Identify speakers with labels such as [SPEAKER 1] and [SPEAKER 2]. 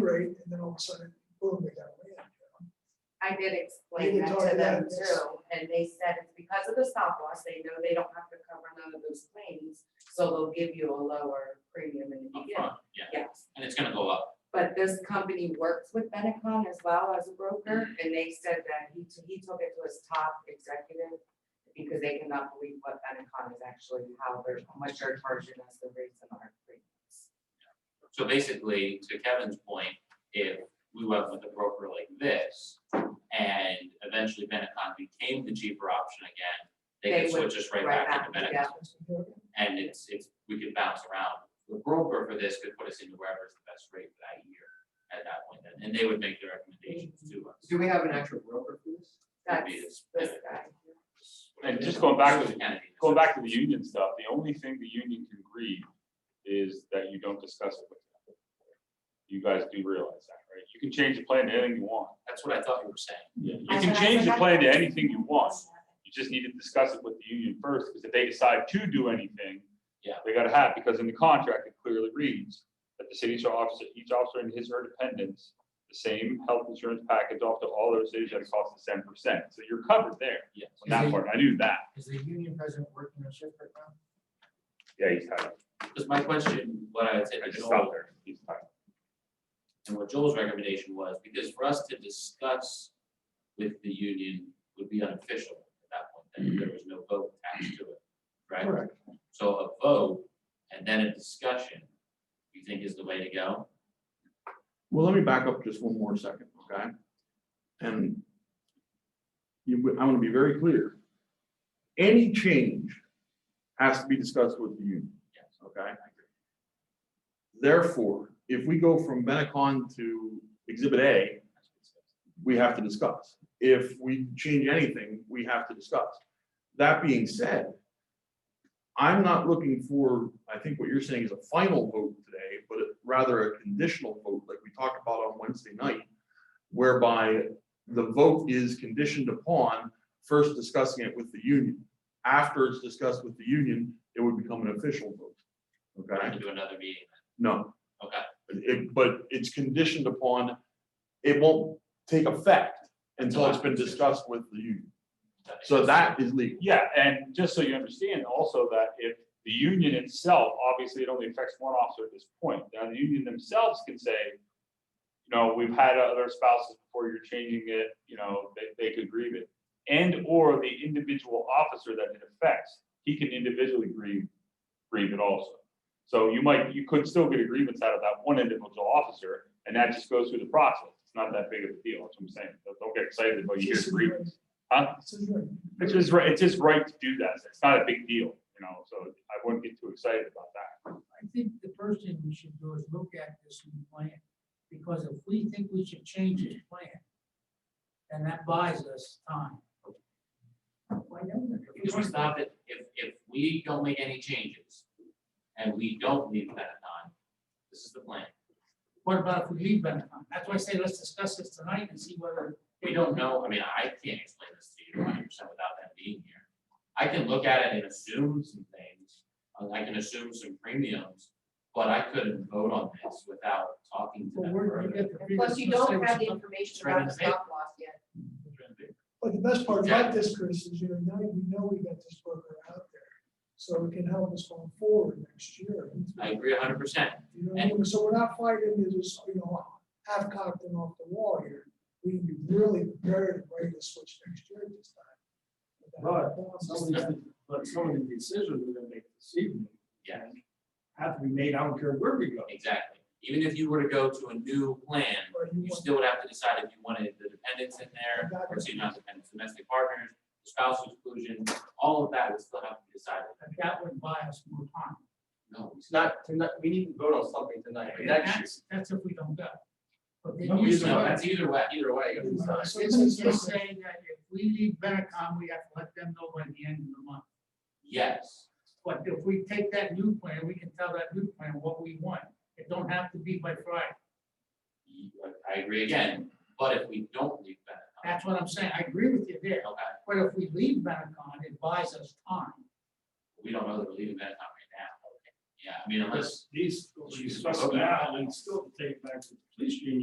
[SPEAKER 1] straight, and then all of a sudden, boom, they got land.
[SPEAKER 2] I did
[SPEAKER 1] You
[SPEAKER 2] explain
[SPEAKER 1] can
[SPEAKER 2] that
[SPEAKER 1] talk
[SPEAKER 2] to them
[SPEAKER 1] about this.
[SPEAKER 2] too, and they said it's because of the stop loss, they know they don't have to cover none of those claims, so they'll give you a lower premium in the beginning.
[SPEAKER 3] upfront, yeah,
[SPEAKER 2] Yes,
[SPEAKER 3] and it's gonna go up.
[SPEAKER 2] but this company works with Benetcon as well as a broker, and they said that he, t- he took it to his top executive because they cannot believe what Benetcon is actually, how they're, how much they're charging us the rates and our premiums.
[SPEAKER 3] So basically, to Kevin's point, if we went with a broker like this and eventually Benetcon became the cheaper option again, they
[SPEAKER 2] They
[SPEAKER 3] could
[SPEAKER 2] would-
[SPEAKER 3] switch us right back into
[SPEAKER 2] back,
[SPEAKER 3] Benetcon.
[SPEAKER 2] yeah.
[SPEAKER 3] And it's, it's, we could bounce around. The broker for this could put us into wherever's the best rate for that year at that point then, and they would make their recommendations to us.
[SPEAKER 4] Do we have an actual broker for this?
[SPEAKER 3] Would be
[SPEAKER 2] That's
[SPEAKER 3] this-
[SPEAKER 2] this guy.
[SPEAKER 5] And just going back to-
[SPEAKER 3] Kennedy.
[SPEAKER 5] Going back to the union stuff, the only thing the union can agree is that you don't discuss it with them. You guys do realize that, right? You can change the plan to anything you want.
[SPEAKER 3] That's what I thought you were saying.
[SPEAKER 5] You
[SPEAKER 2] I
[SPEAKER 5] can
[SPEAKER 2] said- I
[SPEAKER 5] change
[SPEAKER 2] said
[SPEAKER 5] the
[SPEAKER 2] that-
[SPEAKER 5] plan to anything you want. You just need to discuss it with the union first, because if they decide to do anything.
[SPEAKER 3] Yeah.
[SPEAKER 5] They gotta have, because in the contract, it clearly reads that the city shall officer, each officer and his or her dependents, the same health insurance package off to all other cities at a cost of ten percent. So you're covered there
[SPEAKER 3] Yes.
[SPEAKER 5] on that part. I knew that.
[SPEAKER 4] Is the union president working on shift right now?
[SPEAKER 5] Yeah, he's tied up.
[SPEAKER 3] Because my question, what I would say oh,
[SPEAKER 5] I
[SPEAKER 3] to
[SPEAKER 5] just
[SPEAKER 3] Joel
[SPEAKER 5] stopped there. He's tied up.
[SPEAKER 3] And what Joel's recommendation was, because for us to discuss with the union would be unofficial at that point,
[SPEAKER 6] Mm-hmm.
[SPEAKER 3] then there was no vote attached to it, right?
[SPEAKER 1] Correct.
[SPEAKER 3] So a vote and then a discussion, you think is the way to go?
[SPEAKER 6] Well, let me back up just one more second, okay? And you, I want to be very clear. Any change has to be discussed with the union. Yes. Okay? Therefore, if we go from Benetcon to Exhibit A, we have to discuss. If we change anything, we have to discuss. That being said, I'm not looking for, I think what you're saying is a final vote today, but rather a conditional vote like we talked about on Wednesday night, whereby the vote is conditioned upon first discussing it with the union. After it's discussed with the union, it would become an official vote.
[SPEAKER 3] Or
[SPEAKER 6] Okay?
[SPEAKER 3] to do another meeting?
[SPEAKER 6] No.
[SPEAKER 3] Okay.
[SPEAKER 6] It- but it's conditioned upon, it won't take effect until it's been discussed with the union.
[SPEAKER 3] makes
[SPEAKER 6] So
[SPEAKER 3] sense.
[SPEAKER 6] that is legal.
[SPEAKER 5] Yeah, and just so you understand also that if the union itself, obviously it only affects one officer at this point. Now, the union themselves can say, you know, we've had other spouses before you're changing it, you know, they, they could grieve it. And or the individual officer that it affects, he can individually grieve, grieve it also. So you might, you could still get a grievance out of that one individual officer, and that just goes through the process. It's not that big of a deal, that's what I'm saying. Don't- Don't get excited about your grievance. Huh?
[SPEAKER 1] It's just right.
[SPEAKER 5] It's just right, it's just right to do that. It's not a big deal, you know, so I wouldn't get too excited about that.
[SPEAKER 7] I think the first thing we should do is look at this new plan, because if we think we should change this plan, then that buys us time. Why don't we?
[SPEAKER 3] Because we stop it, if, if we don't make any changes and we don't leave that on, this is the plan.
[SPEAKER 7] What about if we leave Benetcon? That's why I say let's discuss this tonight and see whether.
[SPEAKER 3] We don't know, I mean, I can't explain this to you hundred percent without them being here. I can look at it and assume some things, uh, I can assume some premiums, but I couldn't vote on this without talking to
[SPEAKER 7] But
[SPEAKER 3] them
[SPEAKER 7] we're gonna
[SPEAKER 3] further.
[SPEAKER 7] get the
[SPEAKER 2] And Plus, you don't have the information
[SPEAKER 3] Right.
[SPEAKER 2] about the stop loss yet.
[SPEAKER 1] But the best part about this, Chris, is you know, now we know we got this broker out there, so it can help us going forward next year.
[SPEAKER 3] I agree hundred percent,
[SPEAKER 1] You know, what I mean? so we're not fighting to just, you know, half cocked and off the wall here. We can be really prepared and ready to switch next year at this time.
[SPEAKER 4] But some of the, but some of the decisions we're gonna make this evening
[SPEAKER 3] yeah,
[SPEAKER 4] have to be made, I don't care where we go.
[SPEAKER 3] exactly. Even if you were to go to a new plan,
[SPEAKER 1] Or you
[SPEAKER 3] you
[SPEAKER 1] want-
[SPEAKER 3] still would have to decide if you wanted the dependents in there, or if you not dependents, domestic partners, spouse exclusion, all of that would still have to be decided.
[SPEAKER 7] That would buy us more time.
[SPEAKER 3] No, it's
[SPEAKER 4] It's not, tonight, we need to vote on something tonight, but next year.
[SPEAKER 7] That's- That's if we don't go. But then
[SPEAKER 4] No,
[SPEAKER 7] you
[SPEAKER 3] not,
[SPEAKER 4] we don't
[SPEAKER 7] said-
[SPEAKER 4] have
[SPEAKER 3] that's either way, either way.
[SPEAKER 4] Right, it's not-
[SPEAKER 1] So this
[SPEAKER 7] Isn't
[SPEAKER 1] is-
[SPEAKER 7] this saying that if we leave Benetcon, we have to let them know by the end of the month?
[SPEAKER 3] Yes.
[SPEAKER 7] But if we take that new plan, we can tell that new plan what we want. It don't have to be by Friday.
[SPEAKER 3] I agree again, but if we don't leave that,
[SPEAKER 7] That's what I'm saying. I agree with you there.
[SPEAKER 3] okay,
[SPEAKER 7] But if we leave Benetcon, it buys us time.
[SPEAKER 3] we don't know that we're leaving that time right now. Yeah, I mean, unless
[SPEAKER 8] These, you discuss now, and still take back to the police union.